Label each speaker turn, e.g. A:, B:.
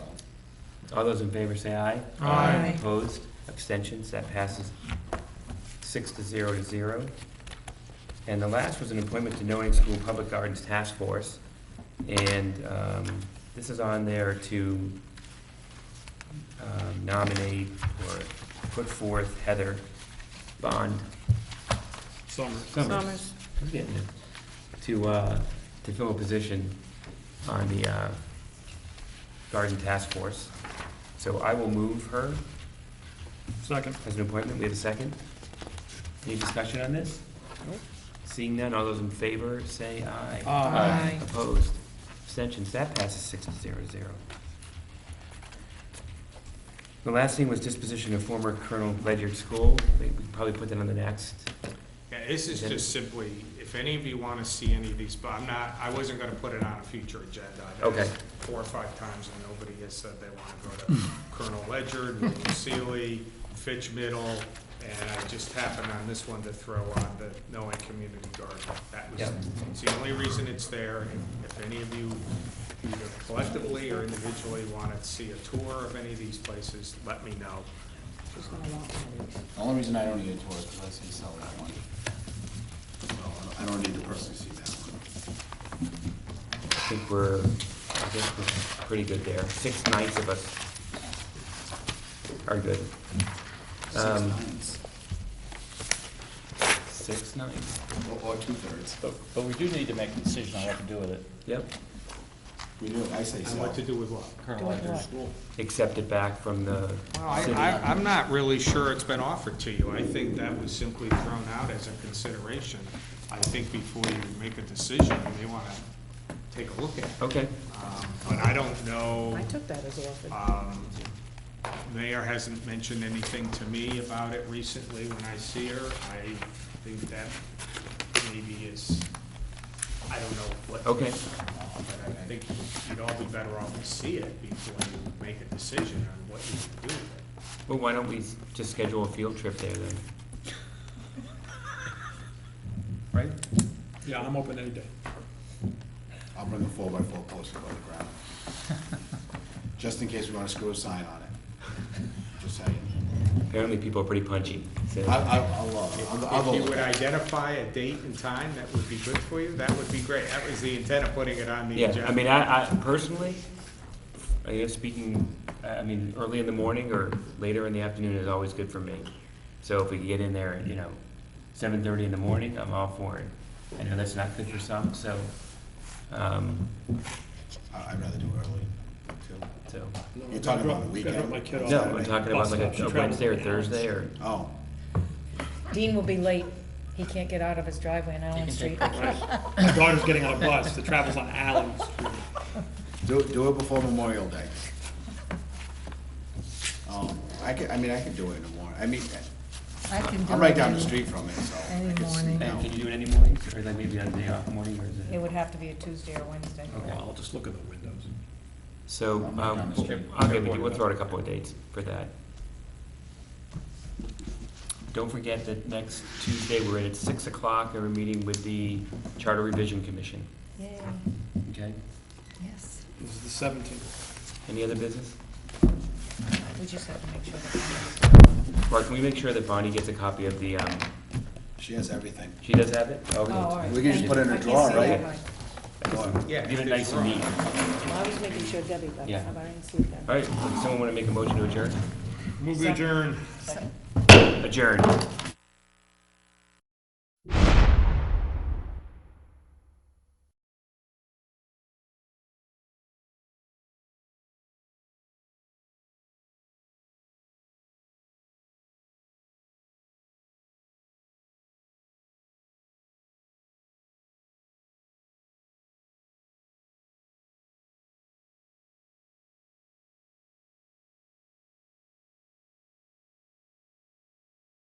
A: All those in favor say aye.
B: Aye.
A: Opposed, abstentions, that passes six to zero to zero. And the last was an appointment to Knowing School Public Gardens Task Force. And um, this is on there to um, nominate or put forth Heather Bond
B: Summers.
A: Summers. I'm getting it. To, uh, to fill a position on the, uh, Garden Task Force. So I will move her
B: Second.
A: as an appointment. We have a second. Any discussion on this?
B: Nope.
A: Seeing none, all those in favor, say aye.
B: Aye.
A: Opposed? Abstentions? That passes six to zero zero. The last thing was disposition of former Colonel Ledyard School. We we probably put that on the next.
C: Yeah, this is just simply, if any of you want to see any of these, but I'm not, I wasn't going to put it on a future agenda. I've
A: Okay.
C: asked Four or five times, and nobody has said they want to go to Colonel Ledyard, William Seeley, Fitch Middle, and I just happened on this one to throw on the Noah Community Garden. That was,
A: Yep.
C: it's the only reason it's there. If- If any of you either collectively or individually want to see a tour of any of these places, let me know.
D: The only reason I don't need a tour is because I say sell that one. So I don't need to personally see that one.
A: I think we're, I guess we're pretty good there. Six nights of us are good.
D: Six
A: Um,
D: nines,
A: Six nights.
D: or- or two thirds.
E: But, but we do need to make a decision on what to do with it.
A: Yep.
D: We do, I say
C: And
D: sell.
C: what to do with what?
E: Colonel Ledger's
A: Accept it back from the
C: Well, I,
A: city.
C: I, I'm not really sure it's been offered to you. I think that was simply thrown out as a consideration. I think before you make a decision, you may want to take a look at it.
A: Okay,
C: Um, But I don't know,
F: I took that as offered.
C: um, mayor hasn't mentioned anything to me about it recently when I see her. I think that maybe is, I don't know what.
A: okay.
C: But I think you'd all be better off to see it before you make a decision on what you can do with it.
A: Well, why don't we just schedule a field trip there then?
B: Right? Yeah, I'm open any day.
D: I'll bring a four by four poster above the ground. Just in case we wanna screw a sign on it. Just saying.
A: Apparently people are pretty punchy, so.
D: I, I, I'll, uh, I'll, I'll go
C: If you
D: look
C: would
D: at it.
C: identify a date and time that would be good for you, that would be great. That was the intent of putting it on the agenda.
A: Yeah, I mean, I, I personally, I guess speaking, I I mean, early in the morning or later in the afternoon is always good for me. So if we can get in there, at, you know, seven thirty in the morning, I'm all for it. I know that's not good for some, so, um,
D: I- I'd rather do it early, too.
A: so.
D: You're talking about the weekend?
B: I drop my kid off.
A: No, I'm talking about like a- a
B: Saturday.
A: Wednesday or Thursday or,
D: Oh,
G: Dean will be late. He can't get out of his driveway on Allen Street.
B: Right. My daughter's getting on a bus that travels on Allen Street.
D: do, do it before Memorial Day. Um, I could, I mean, I could do it in the morning, I mean,
G: I can do
D: I'm right
G: it
D: down the
G: any-
D: street from it, so. I
G: any
D: could sneak
G: morning.
A: and
D: out.
A: can you do it any morning, or like maybe on a day off morning, or is
G: It
A: it?
G: would have to be a Tuesday or Wednesday.
A: Okay.
B: I'll just look at the windows.
A: So,
D: I'm right down
A: um,
D: the street.
A: I'll give you, we'll throw out a couple of dates for that. Don't forget that next Tuesday, we're at six o'clock, and we're meeting with the Charter Revision Commission,
G: Yeah,
A: okay?
G: yes.
B: This is the seventeenth.
A: Any other business?
G: We just have to make sure. that-
A: Mark, can we make sure that Bonnie gets a copy of the, um,
D: She has everything.
A: she does have it?
G: Oh, all right.
D: We can just
G: Thank
D: put it in
G: you.
D: a
G: I can't
D: drawer,
G: see
D: right?
G: that, right.
C: Yeah,
A: Give it
C: if
A: nice
C: it's
A: and
C: wrong.
A: neat. All
F: Well, I was making sure Debbie got it,
A: Yeah.
F: but I didn't see that.
A: right, someone want to make a motion to adjourn?
C: Move adjourn.
A: Adjourn.